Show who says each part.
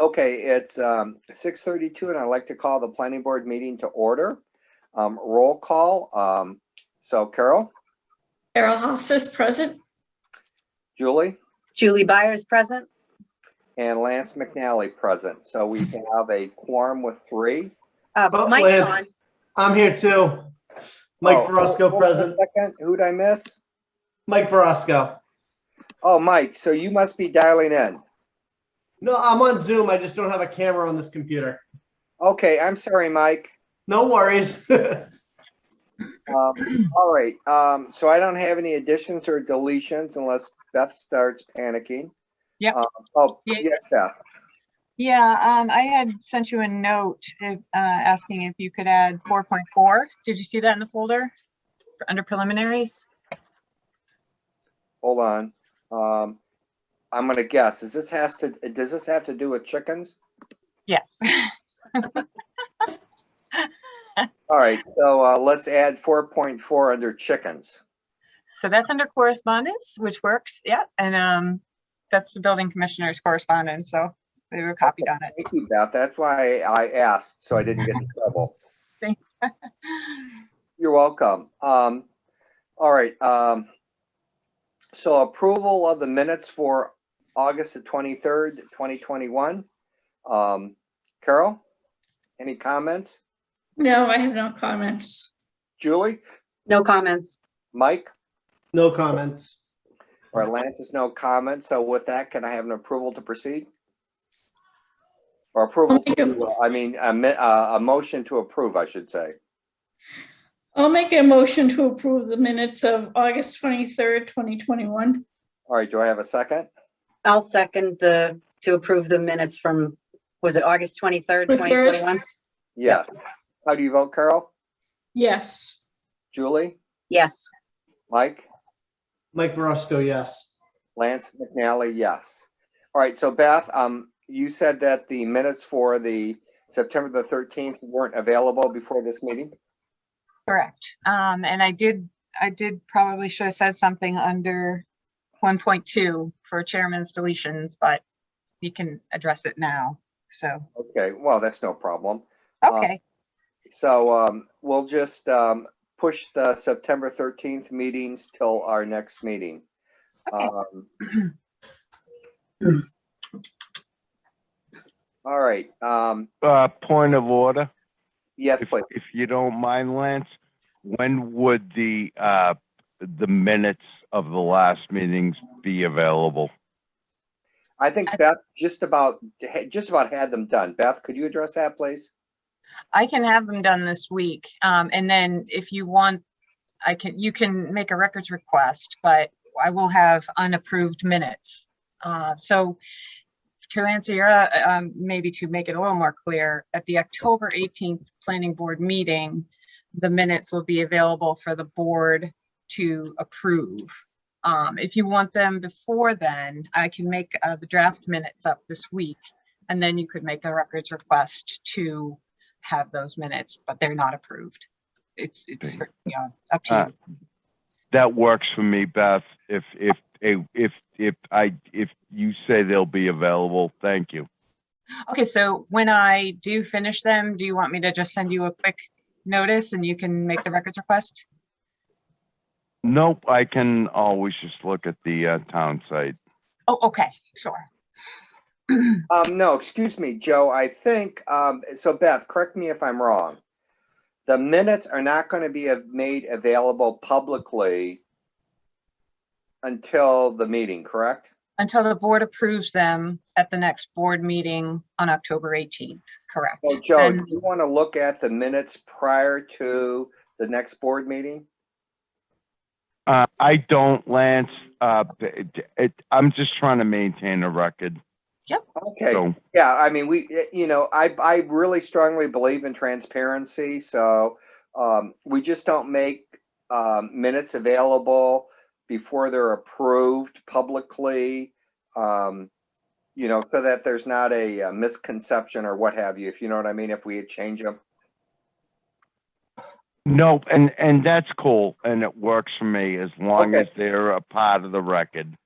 Speaker 1: Okay, it's um six thirty-two and I'd like to call the planning board meeting to order. Um, roll call, um, so Carol,
Speaker 2: Carol Hoff is present.
Speaker 1: Julie,
Speaker 3: Julie Byers present.
Speaker 1: and Lance McNally present. So we have a quorum with three.
Speaker 3: Uh,
Speaker 4: Oh,
Speaker 3: but Mike's
Speaker 4: Lance.
Speaker 3: on.
Speaker 4: I'm here too. Mike
Speaker 1: Oh, hold
Speaker 4: Verosco
Speaker 1: on a
Speaker 4: present.
Speaker 1: second. Who'd I miss?
Speaker 4: Mike Verosco.
Speaker 1: Oh, Mike, so you must be dialing in.
Speaker 4: No, I'm on Zoom. I just don't have a camera on this computer.
Speaker 1: Okay, I'm sorry, Mike.
Speaker 4: No worries.
Speaker 1: Um, all right, um, so I don't have any additions or deletions unless Beth starts panicking.
Speaker 5: Yep.
Speaker 1: Um, Oh,
Speaker 5: Yeah.
Speaker 1: yeah, Beth.
Speaker 5: Yeah, um, I had sent you a note, if, uh, asking if you could add four point four. Did you see that in the folder? Under preliminaries?
Speaker 1: hold on. Um, I'm gonna guess, is this has to, does this have to do with chickens?
Speaker 5: Yes.
Speaker 1: All right, so, uh, let's add four point four under chickens.
Speaker 5: So that's under correspondence, which works, yeah, and, um, that's the building commissioner's correspondence, so they were copied on it.
Speaker 1: Thank you, Beth. That's why I asked, so I didn't get in trouble. You're welcome. Um, all right, um, so approval of the minutes for August the twenty-third, twenty twenty-one. Um, Carol, any comments?
Speaker 2: No, I have no comments.
Speaker 1: Julie,
Speaker 3: No comments.
Speaker 1: Mike?
Speaker 4: No comments.
Speaker 1: All right, Lance has no comment, so with that, can I have an approval to proceed? Or approval,
Speaker 2: I'll make a-
Speaker 1: to, uh, I mean, a, mi- uh, a motion to approve, I should say.
Speaker 2: I'll make a motion to approve the minutes of August 23rd, 2021.
Speaker 1: All right, do I have a second?
Speaker 3: I'll second the, to approve the minutes from, was it August 23rd,
Speaker 2: The third.
Speaker 3: 2021?
Speaker 1: Yes. How do you vote, Carol?
Speaker 2: Yes.
Speaker 1: Julie?
Speaker 3: Yes.
Speaker 1: Mike?
Speaker 4: Mike Verosco, yes.
Speaker 1: Lance McNally, yes. All right, so Beth, um, you said that the minutes for the September the thirteenth weren't available before this meeting?
Speaker 5: Correct. Um, and I did, I did probably should have said something under one point two for chairman's deletions, but you can address it now, so,
Speaker 1: Okay, well, that's no problem. Uh,
Speaker 5: okay.
Speaker 1: So um, we'll just um, push the September 13th meetings till our next meeting.
Speaker 5: Okay.
Speaker 1: Um, All right, um,
Speaker 6: Uh, point of order,
Speaker 1: yes,
Speaker 6: if,
Speaker 1: please.
Speaker 6: if you don't mind, Lance, when would the, uh, the minutes of the last meetings be available?
Speaker 1: I think Beth just about, just about had them done. Beth, could you address that, please?
Speaker 5: I can have them done this week. Um, and then if you want, I can, you can make a records request, but I will have unapproved minutes. Uh, so to answer your, uh, um, maybe to make it a little more clear, at the October 18th Planning Board meeting, the minutes will be available for the board to approve. Um, if you want them before then, I can make, uh, the draft minutes up this week. And then you could make a records request to have those minutes, but they're not approved. It's, it's,
Speaker 6: Thank
Speaker 5: you know, up
Speaker 6: Uh,
Speaker 5: to you.
Speaker 6: That works for me, Beth. If, if, if, if I, if you say they'll be available, thank you.
Speaker 5: Okay, so when I do finish them, do you want me to just send you a quick notice and you can make the records request?
Speaker 6: Nope, I can always just look at the, uh, town site.
Speaker 5: Oh, okay, sure.
Speaker 1: Um, no, excuse me, Joe, I think, um, so Beth, correct me if I'm wrong. The minutes are not gonna be av- made available publicly until the meeting, correct?
Speaker 5: Until the board approves them at the next board meeting on October 18th, correct?
Speaker 1: So Joe, do
Speaker 5: Then-
Speaker 1: you wanna look at the minutes prior to the next board meeting?
Speaker 6: Uh, I don't, Lance, uh, it, it, I'm just trying to maintain a record,
Speaker 1: Okay,
Speaker 6: so.
Speaker 1: yeah, I mean, we, eh, you know, I, I really strongly believe in transparency, so, um, we just don't make, um, minutes available before they're approved publicly, um, you know, so that there's not a uh, misconception or what have you, if you know what I mean, if we change them.
Speaker 6: Nope, and, and that's cool, and it works for me as long
Speaker 1: Okay.
Speaker 6: as they're a part of the record.